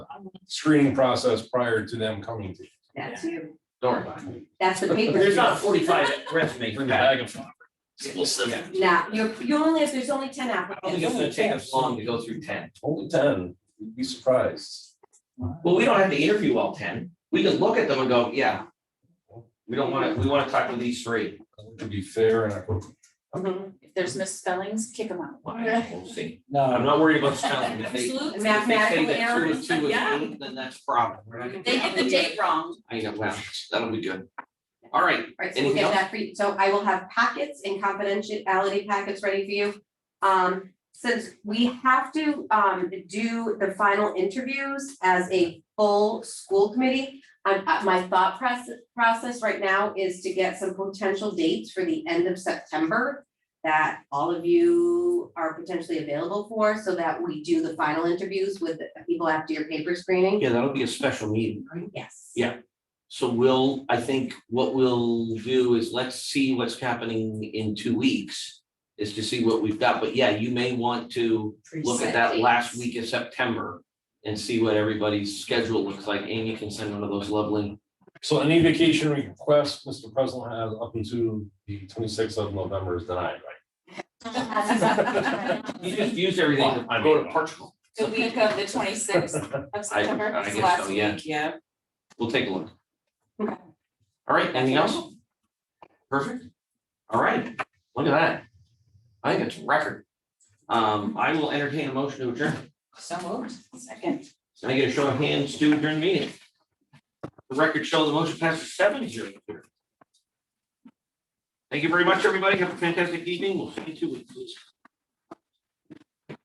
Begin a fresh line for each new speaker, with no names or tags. screening process prior to them coming to. you.
That's you,
Don't worry about it.
that's the paper.
There's not forty-five resumes.
Bring
for
the
that.
bag of flour. We'll sip.
Yeah.
Nah, you're, you only, if there's only ten
I don't think it's
applicants,
gonna take us long to go through ten.
Only ten, you'd be surprised.
Well, we don't have to interview all ten. We can look at them and go, yeah. We don't wanna, we wanna talk to these three.
To be fair and equitable.
If there's misspellings, kick them out.
Well, We'll see. I'm
No,
not worried about spelling. If they- if
Absolutely.
they say
mathematical
that two is
errors,
two is
Yeah.
eight, then that's a problem. We're not gonna-
They get the date wrong.
I know, well, that'll be good. All right,
right, so we'll
Anything
get
else?
that for you, so I will have packets and confidentiality packets ready for you. Um, since we have to, um, do the final interviews as a full school committee. I'm, uh, my thought process, process right now is to get some potential dates for the end of September. That all of you are potentially available for, so that we do the final interviews with the people after your paper screening,
yeah, that'll be a special meeting.
yes.
Yeah. So we'll, I think what we'll do is let's see what's happening in two weeks. Is to see what we've got, but yeah, you may want to look at that last week of September. And see what everybody's schedule looks like. Amy can send one of those lovely,
So any vacation requests Mr. President has up until the twenty-sixth of November is denied, right?
you just used everything to go to Portugal.
The week of the twenty-sixth of September,
I
it's
guess
last
so, yeah.
week, yeah.
We'll take a look.
Okay.
All right, anything else? Perfect. All right, look at that. I think it's a record. Um, I will entertain a motion to adjourn.
So moved, second.
Can I get a show of hands to adjourn the meeting? The record shows the motion passes seven zero. Thank you very much, everybody. Have a fantastic evening. We'll see you in two weeks.